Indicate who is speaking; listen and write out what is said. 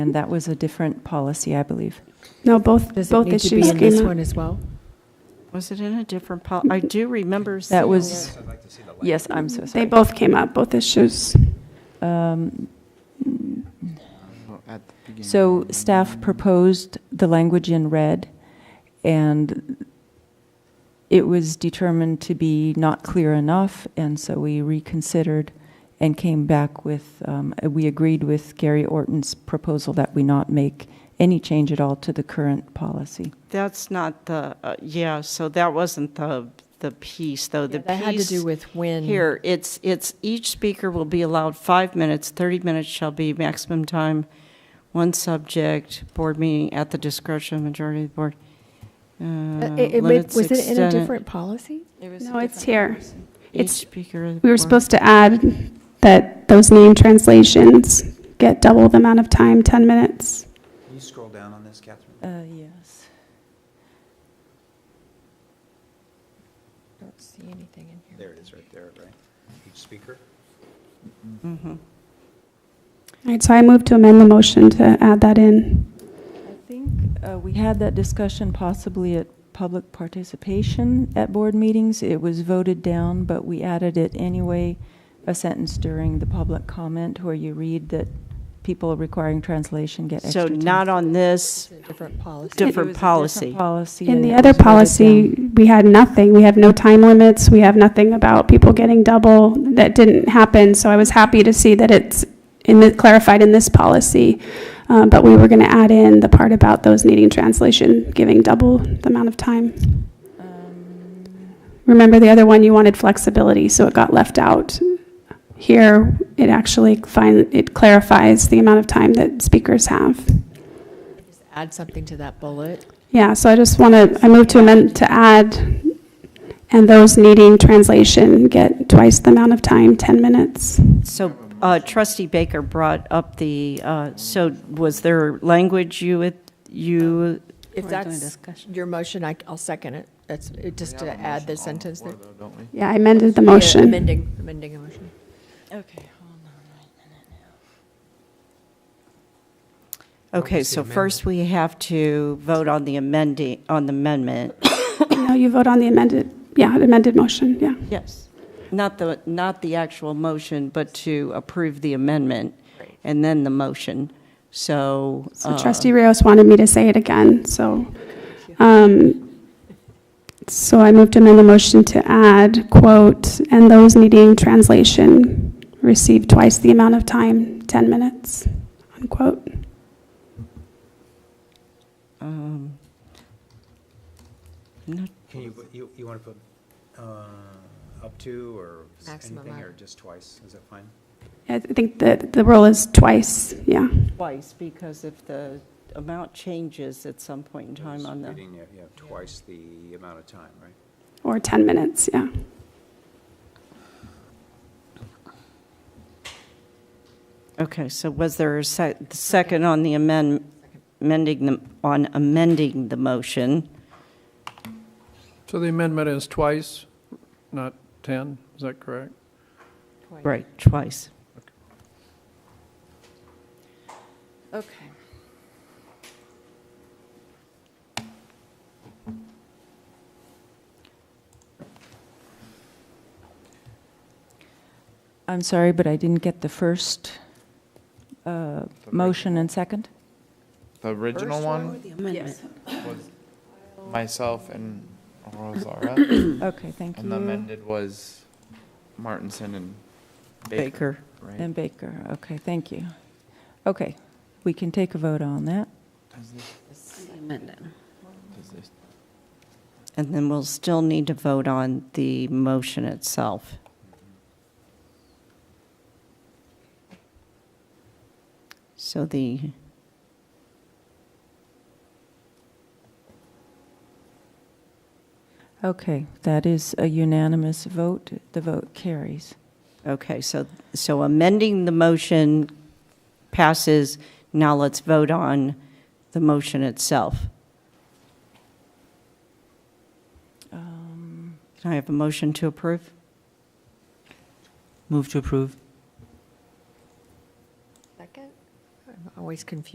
Speaker 1: And that was a different policy, I believe.
Speaker 2: No, both,
Speaker 3: Does it
Speaker 2: both
Speaker 3: need to be
Speaker 2: issues
Speaker 3: in this
Speaker 2: came up.
Speaker 3: one as well?
Speaker 4: Was it in a different pol, I do remember
Speaker 1: That
Speaker 4: seeing
Speaker 1: was,
Speaker 4: it.
Speaker 1: yes, I'm so
Speaker 2: They
Speaker 1: sorry.
Speaker 2: both came up, both issues.
Speaker 1: Um, So staff proposed the language in red, and it was determined to be not clear enough, and so we reconsidered and came back with, um, we agreed with Gary Orton's proposal that we not make any change at all to the current policy.
Speaker 4: That's not the, uh, yeah, so that wasn't the, the piece, though. The
Speaker 3: That had to
Speaker 4: piece
Speaker 3: do with when.
Speaker 4: here, it's, it's, each speaker will be allowed five minutes, 30 minutes shall be maximum time, one subject, board meeting at the discretion of majority of the board. Uh,
Speaker 3: Uh, it- it-
Speaker 4: limits
Speaker 3: Was it in a
Speaker 4: extent-
Speaker 3: different policy?
Speaker 2: No, it's here.
Speaker 4: Each
Speaker 2: it's-
Speaker 4: speaker of the
Speaker 2: We were
Speaker 4: board.
Speaker 2: supposed to add that those name translations get double the amount of time, 10 minutes.
Speaker 5: Can you scroll down on this, Catherine?
Speaker 1: Uh, yes.
Speaker 3: Don't see anything in here.
Speaker 5: There it is, right there, right? Each speaker?
Speaker 4: Mhm.
Speaker 2: All right, so I move to amend the motion to add that in.
Speaker 1: I think uh, we had that discussion possibly at public participation at board meetings. It was voted down, but we added it anyway, a sentence during the public comment where you read that people requiring translation get extra
Speaker 4: So
Speaker 1: time.
Speaker 4: not on
Speaker 3: It's
Speaker 4: this,
Speaker 3: in a different
Speaker 1: It
Speaker 3: policy.
Speaker 1: was a
Speaker 4: different policy.
Speaker 1: Policy.
Speaker 2: In
Speaker 1: and
Speaker 2: the
Speaker 1: it
Speaker 2: other
Speaker 1: was voted
Speaker 2: policy,
Speaker 1: down.
Speaker 2: we had nothing. We have no time limits. We have nothing about people getting double. That didn't happen, so I was happy to see that it's in the, clarified in this policy. Uh, But we were going to add in the part about those needing translation, giving double the amount of time.
Speaker 1: Um,
Speaker 2: Remember the other one, you wanted flexibility, so it got left out. Here, it actually find, it clarifies the amount of time that speakers have.
Speaker 3: Just Add something to that bullet.
Speaker 2: Yeah, so I just want to, I move to amend, to add, and those needing translation get twice the amount of time, 10 minutes.
Speaker 4: So uh, trustee Baker brought up the, uh, so was there language you, would- you,
Speaker 3: If
Speaker 6: We're doing
Speaker 3: that's
Speaker 6: discussion.
Speaker 3: your motion, I, will second it. That's, it- just to add the sentence there.
Speaker 5: Don't we?
Speaker 2: Yeah, I amended the
Speaker 3: Yeah,
Speaker 2: motion.
Speaker 3: Amending, amending a motion.
Speaker 4: okay, okay, so first we have to vote on the amending, on the amendment.
Speaker 2: No, you vote on the amended, yeah, amended motion, yeah.
Speaker 4: Yes. Not the, not the actual motion, but to approve the amendment and then the motion. So.
Speaker 2: So
Speaker 3: Uh-huh.
Speaker 4: uh,
Speaker 2: trustee Rios wanted me to say it again, so. um, So I moved to amend the motion to add, quote, "and those needing translation receive twice the amount of time, 10 minutes," unquote.
Speaker 4: um, not-
Speaker 5: Can you, you, you want to put, uh, up to, or is
Speaker 3: Maximum
Speaker 5: anything,
Speaker 3: up.
Speaker 5: or just twice? Is that fine?
Speaker 2: I think that the rule is twice, yeah.
Speaker 4: Twice, because if the amount changes at some point in time
Speaker 5: Just
Speaker 4: on the.
Speaker 5: reading, yeah, yeah, twice the amount of time, right?
Speaker 2: Or 10 minutes, yeah.
Speaker 4: Okay, so was there a sec- second on the amend, amending, the- on amending the motion?
Speaker 7: So the amendment is twice, not 10, is that correct?
Speaker 4: Right, twice.
Speaker 6: Okay.
Speaker 1: I'm sorry, but I didn't get the first uh, motion and second.
Speaker 8: The original one,
Speaker 6: Amendment.
Speaker 8: myself and Rosara,
Speaker 1: Okay, thank
Speaker 8: and the
Speaker 1: you.
Speaker 8: amended was Martinson and Baker,
Speaker 4: Baker.
Speaker 8: right?
Speaker 1: And Baker, okay, thank you. Okay, we can take a vote on that.
Speaker 8: Does this-
Speaker 6: Amendment.
Speaker 8: does this-
Speaker 4: And then we'll still need to vote on the motion itself. So the.
Speaker 1: Okay, that is a unanimous vote. The vote carries.
Speaker 4: Okay, so, so amending the motion passes. Now let's vote on the motion itself.
Speaker 1: Um,
Speaker 4: Can I have a motion to approve?
Speaker 3: Second? I'm always confused